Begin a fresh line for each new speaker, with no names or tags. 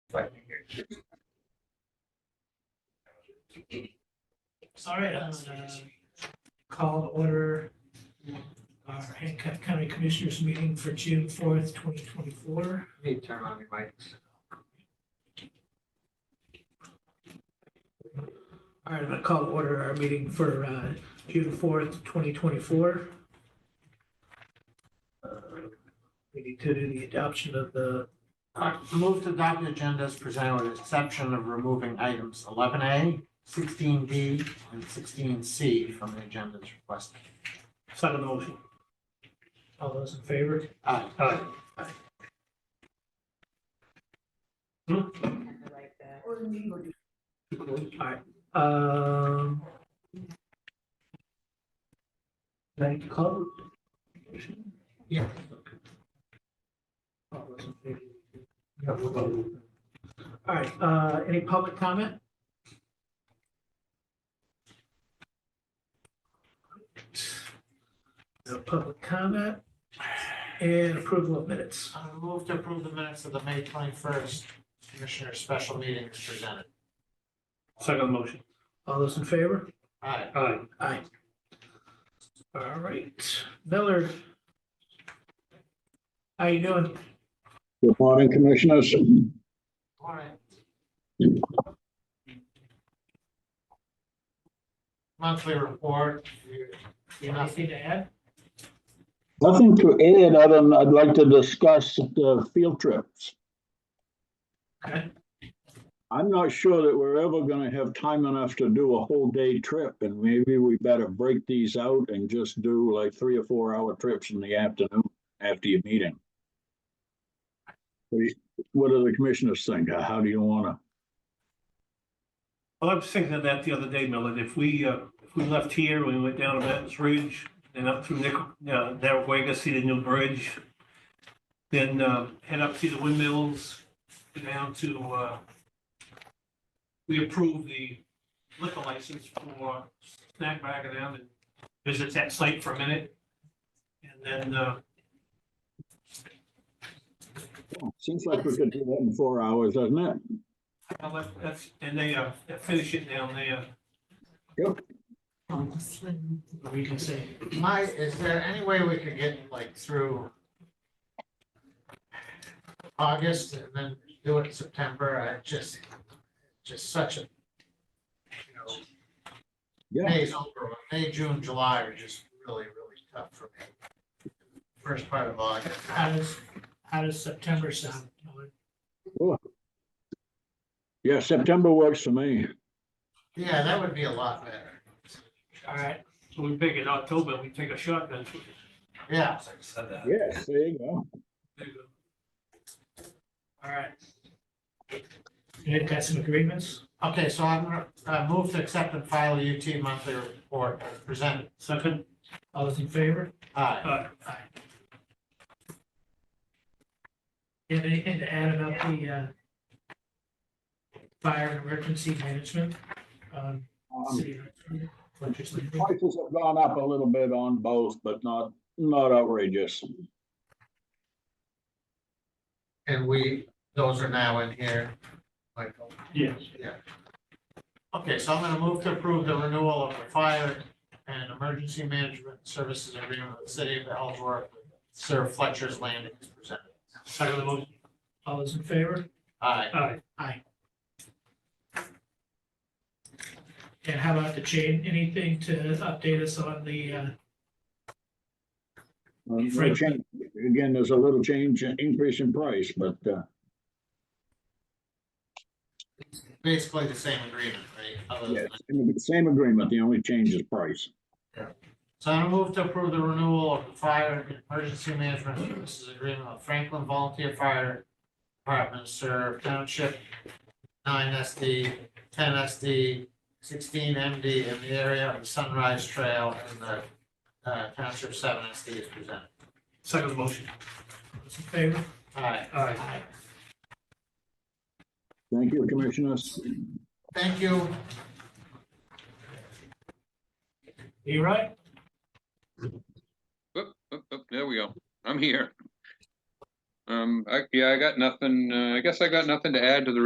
All right, uh, call to order our Hancock County Commissioners meeting for June fourth, twenty twenty-four.
Need to turn on your mics.
All right, I'm gonna call to order our meeting for uh, June fourth, twenty twenty-four. Uh, We need to do the adoption of the,
Uh, Move to adopt the agenda as presented with exception of removing items eleven A, sixteen B, and sixteen C from the agenda as requested.
Second motion.
all those in favor?
Aye.
Aye.
I like that.
Alright, um. Thank you, call. Yeah. Alright, uh, any public comment? No public comment and approval of minutes.
Uh, Move to approve the minutes of the May twenty-first Commissioner Special Meeting as presented.
Second motion.
All those in favor?
Aye.
Aye.
Aye. All right, Miller. How you doing?
Good morning, Commissioners.
All right. Monthly report, you- you know,
Anything to add?
Nothing to add, other than I'd like to discuss the field trips.
Okay.
I'm not sure that we're ever gonna have time enough to do a whole day trip, and maybe we better break these out and just do like three or four hour trips in the afternoon after your meeting. We- What do the commissioners think? How do you wanna?
Well, I was thinking of that the other day, Millard. If we, uh, if we left here, we went down to Mountains Ridge and up through Nickel, uh, Narragansett, see the new bridge. Then, uh, head up to the windmills, go down to, uh, we approved the liquor license for snack bag and down and visit that site for a minute. And then, uh,
Seems like we could do that in four hours, doesn't it?
I'll let- that's, and they, uh, finish it down there.
We can say,
my, is there any way we could get like through August and then do it in September? I just, just such a, you know,
Yeah.
May's over, May, June, July are just really, really tough for me. First part of August.
how does, how does September sound?
Yeah, September works for me.
Yeah, that would be a lot better.
All right,
So we pick it October, we take a shotgun.
Yeah.
Yes, there you go.
all right. You got some agreements?
Okay, so I'm gonna uh, move to accept and file a UT monthly report as presented.
Second,
All those in favor?
Aye.
uh,
You have anything to add about the, uh, fire and emergency management? um,
Um,
city of- legislature?
Prices have gone up a little bit on both, but not, not outrageous. Uh,
And we, those are now in here, Michael.
yes.
Okay, so I'm gonna move to approve the renewal of the fire and emergency management services agreement with the city of Ellsworth, Sir Fletcher's Landing is presented.
Second motion,
All those in favor?
Aye.
aye.
And how about the chain, anything to update us on the, uh,
Um,
Frank.
change- Again, there's a little change, in- increase in price, but, uh,
Basically the same agreement, right? Other than-
yeah, same- same agreement, the only change is price.
So I'm gonna move to approve the renewal of the fire and emergency management services agreement with Franklin Volunteer Fire Department, Sir Township, nine SD, ten SD, sixteen MD in the area of the Sunrise Trail and the uh, Township seven SD is presented.
Second motion,
those in favor?
Aye.
aye.
Thank you, Commissioners.
Thank you.
You right?
Oop, oop, oop, Oh, there we go. I'm here. Um, I, yeah, I got nothing, uh, I guess I got nothing to add to the